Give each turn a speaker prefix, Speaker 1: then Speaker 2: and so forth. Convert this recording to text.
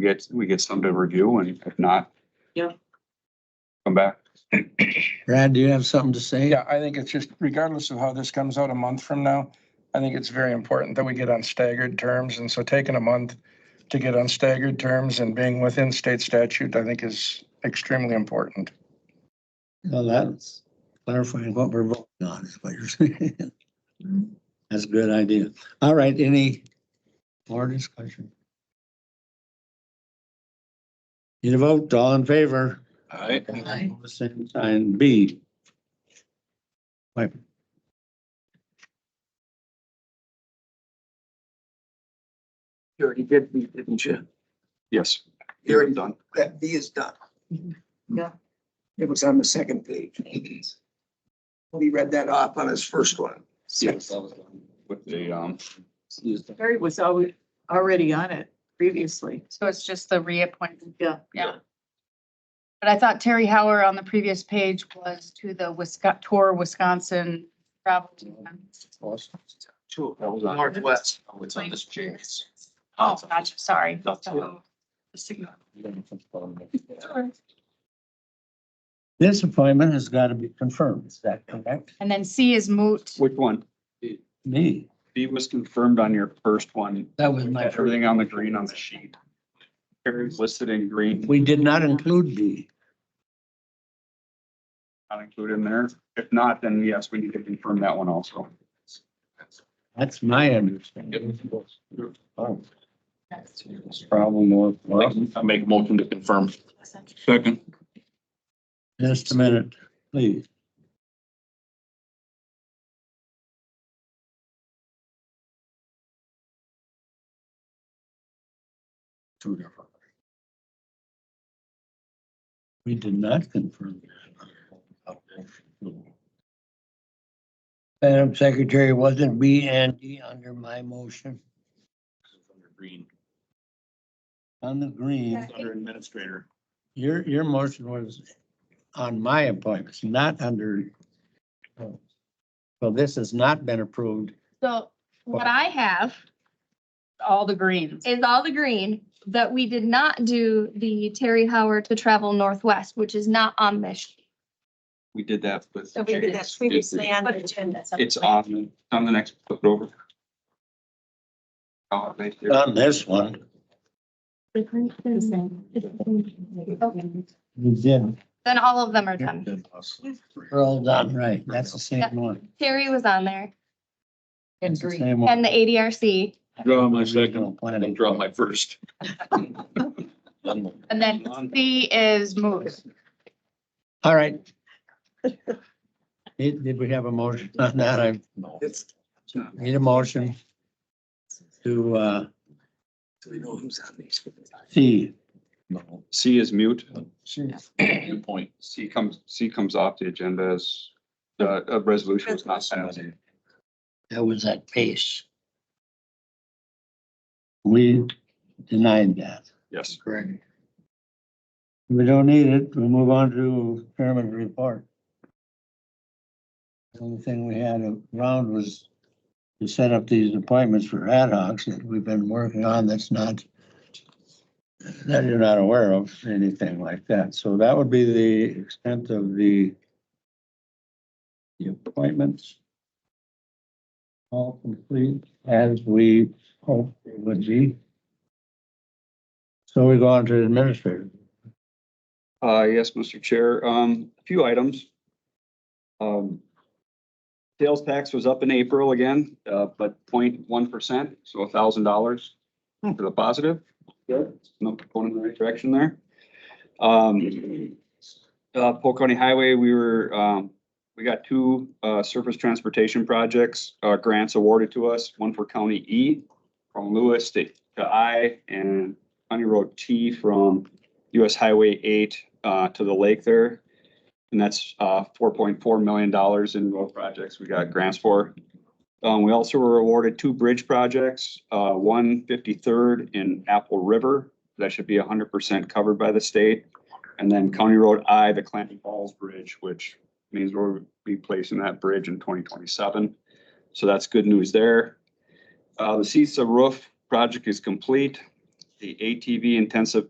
Speaker 1: we get, we get some to review and if not.
Speaker 2: Yeah.
Speaker 1: Come back.
Speaker 3: Brad, do you have something to say?
Speaker 4: Yeah, I think it's just regardless of how this comes out a month from now, I think it's very important that we get on staggered terms. And so taking a month to get on staggered terms and being within state statute, I think is extremely important.
Speaker 3: Well, that's clarifying what we're voting on is what you're saying. That's a good idea. All right, any more discussion? Need a vote, all in favor?
Speaker 1: Alright.
Speaker 2: Aye.
Speaker 3: Same sign, B. Wait.
Speaker 5: You already did B, didn't you?
Speaker 1: Yes.
Speaker 5: You already,
Speaker 1: Done.
Speaker 5: that B is done.
Speaker 2: Yeah.
Speaker 5: It was on the second page. He read that off on his first one.
Speaker 1: Yes. With the, um,
Speaker 2: Terry was always, already on it previously.
Speaker 6: So it's just the reappointment,
Speaker 2: Yeah.
Speaker 6: yeah. But I thought Terry Hauer on the previous page was to the Wisconsin, tour Wisconsin travel.
Speaker 5: Two.
Speaker 1: That was on-
Speaker 5: Northwest.
Speaker 7: Oh, it's on this chair.
Speaker 6: Oh, gotcha, sorry.
Speaker 7: That's-
Speaker 6: So, the signal.
Speaker 3: This appointment has got to be confirmed, is that correct?
Speaker 6: And then C is moot.
Speaker 1: which one?
Speaker 3: Me,
Speaker 1: B was confirmed on your first one.
Speaker 3: that was my.
Speaker 1: Everything on the green on the sheet. Carrie's listed in green,
Speaker 3: We did not include B.
Speaker 1: not included in there. If not, then yes, we need to confirm that one also.
Speaker 3: That's my understanding. Oh, Problem more.
Speaker 7: I make a motion to confirm.
Speaker 1: Second.
Speaker 3: Just a minute, please. Two different. We did not confirm. Madam Secretary, wasn't B and D under my motion
Speaker 7: Green,
Speaker 3: on the green?
Speaker 7: under administrator.
Speaker 3: Your, your motion was on my appointments, not under. So this has not been approved.
Speaker 8: So what I have
Speaker 6: All the greens.
Speaker 8: is all the green that we did not do the Terry Howard to travel northwest, which is not on this. sheet.
Speaker 1: We did that with,
Speaker 9: So we did that previously on the agenda. so-
Speaker 1: it's on, it's on the next, flip it over. Oh, they did.
Speaker 7: Uh,
Speaker 3: On this one, we did.
Speaker 8: Then all of them are done.
Speaker 3: We're all done, right? That's the same one.
Speaker 8: Terry was on there
Speaker 2: And
Speaker 3: It's the
Speaker 2: green.
Speaker 3: same one.
Speaker 8: and the ADRC.
Speaker 7: Draw my
Speaker 3: Original planning.
Speaker 7: Draw my first.
Speaker 6: And then C is moot.
Speaker 3: All right. Did, did we have a motion on that? I
Speaker 5: It's,
Speaker 3: need a motion to, uh,
Speaker 5: so we know who's on these.
Speaker 3: see.
Speaker 1: C is mute.
Speaker 7: Good point.
Speaker 1: C comes, C comes off the agenda as the, a resolution was not passed.
Speaker 3: That was at pace. We denied that.
Speaker 1: Yes.
Speaker 3: Correct. We don't need it. We'll move on to chairman's report. The only thing we had around was to set up these appointments for ad hocs that we've been working on that's not, that you're not aware of, anything like that. So that would be the extent of the the appointments. All complete as we hoped it would be. So we go on to administrator.
Speaker 1: Uh, yes, Mr. Chair, um, a few items. Um, sales tax was up in April again, uh, but 0.1 percent, so thousand dollars to the positive. Good, no, going in the right direction there. Um, uh, Polk County Highway, we were, um, we got two, uh, surface transportation projects, uh, grants awarded to us, one for County E from Lewis to to I and County Road T from US Highway eight uh to the lake there. And that's uh four point four million dollars in road projects we got grants for. Um, we also were awarded two bridge projects, uh one fifty-third in Apple River. That should be hundred percent covered by the state. And then County Road I, the Clanton Falls Bridge, which means we'll be placing that bridge in twenty twenty-seven. So that's good news there. Uh, the CISA roof project is complete. the ATV intensive